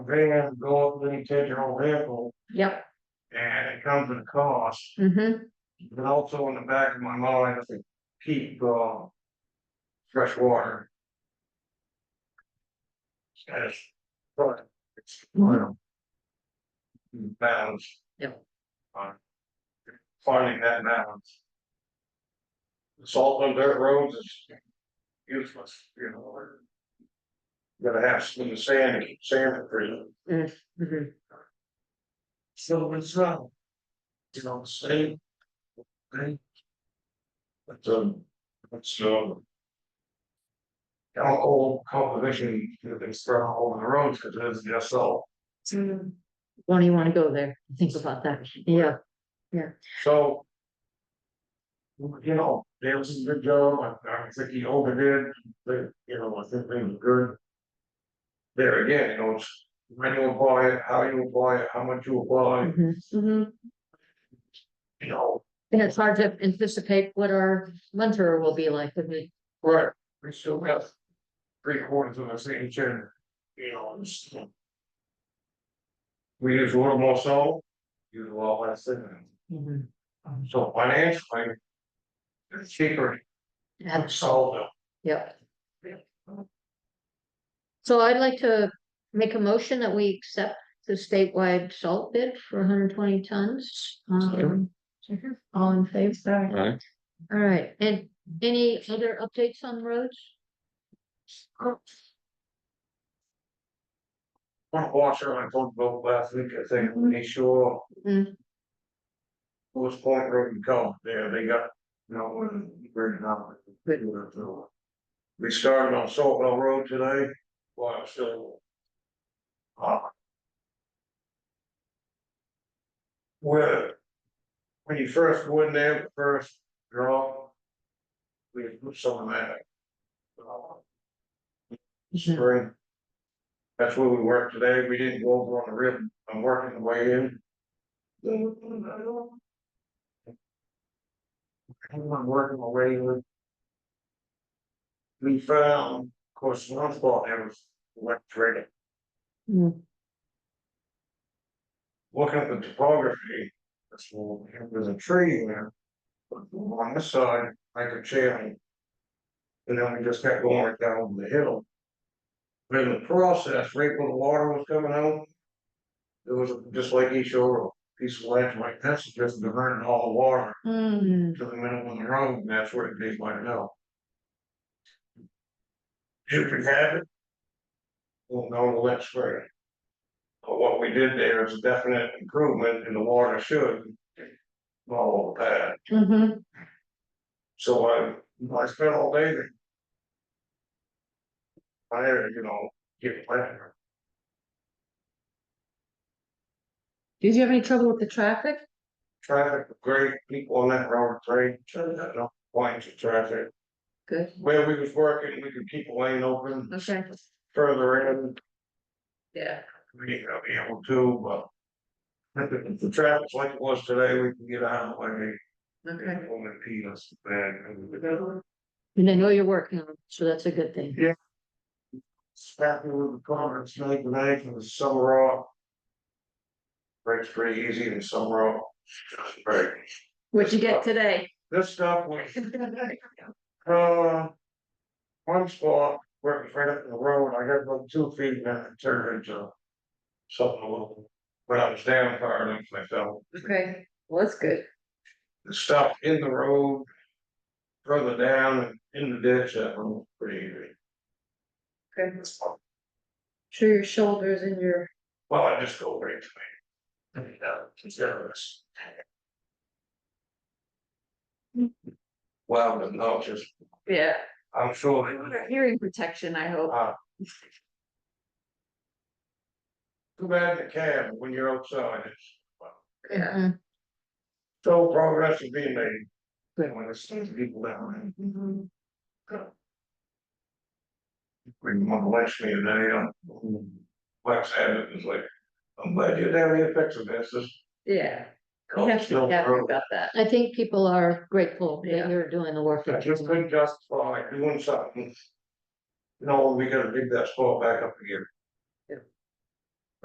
van go up and take your own vehicle Yep, and it comes at a cost. mhm, But also in the back of my mind, I think keep uh. Fresh water. As, but it's, well. Balance. Yep. On Finding that balance. The Salt on dirt roads is useless, you know. or- Gotta have some of the sand, sand for them. mhm. So it's wrong. You know, same. Okay. But um, it's um. Our whole composition, you know, they spread all over the roads because it's just so, Don't Mm-hmm. even wanna go there, think about that, yeah, so. You know, Dale's is a good job, I I don't think he overdid, but you know, I think they were good. There again, you know, it's when you apply it, how you apply it, how much you apply, mhm, mhm. you know, And it's hard to anticipate what our winter will be like, I mean, Right, we still have three quarters of the same chin, you know, it's. We use a little more salt, use a lot less than, mhm. so financially. It's cheaper to That's- salt them. Yep. So I'd like to make a motion that we accept the statewide salt bid for hundred twenty tons. Um, All in favor? Right, All right, and any other updates on roads? Oh. One washer, I told both last week, I think, make sure. Mhm. Who's point road and come, there, they got, you know, burning out. We started on Salt Hill Road today, while I'm still. Uh. Where. When you first go in there, the first draw. We put some of that. uh, spring. That's where we worked today, we didn't go over on the rib, I'm working the way in. I'm working my way in. We found, of course, one spot that was electric, Mm, looking at the topography, this little, there's a tree in there. but On this side, like a channel. And then we just kept going right down the hill. But in the process, right where the water was coming out. There was just like each showed, a piece of ledge like this, just diverting all the water Hmm. mm, to the middle of the road, and that's where it did my know. If we have it. We'll know the next spring. But what we did there is a definite improvement in the water should. Follow that, Mm-hmm. mhm. so I, I spent all day there. I, you know, get planted. Did you have any trouble with the traffic? Traffic, was great, people on that road, great, no points of traffic. Good. Where we was working, we could keep a lane open. Okay. Further in, Yeah. we ain't gonna be able to, but. If the traffic's like it was today, we can get out of the way, Okay. and we'll impede us, man. And I know you're working on it, so that's a good thing. Staffing with the comments, night and night, and the summer off. Breaks pretty easy in the summer off. Right. What'd you get today? This stuff was Uh. One spot, where it was right up the road, I got about two feet and then it turned into. Something a little, but I was down far enough myself, Okay, well, that's good. the stuff in the road. Further down and in the ditch, that one was pretty easy. Okay. Sure your shoulders and your, Well, I just go right to me. And, uh, generous. Well, but no, just, yeah, I'm sure. hearing protection, I hope. Too bad in the cab, when you're outside, it's Yeah. Mhm. So progress is being made. They want to see people down there. We want to watch me and then, um, Lex had it, it's like, I'm glad you didn't have any effects of this, this. Yeah. Oh, We have to still be happy broke. about that. I think people are grateful Yeah. that you're doing the work. I that you're just doing. couldn't justify doing something. No, we gotta dig that spot back up again.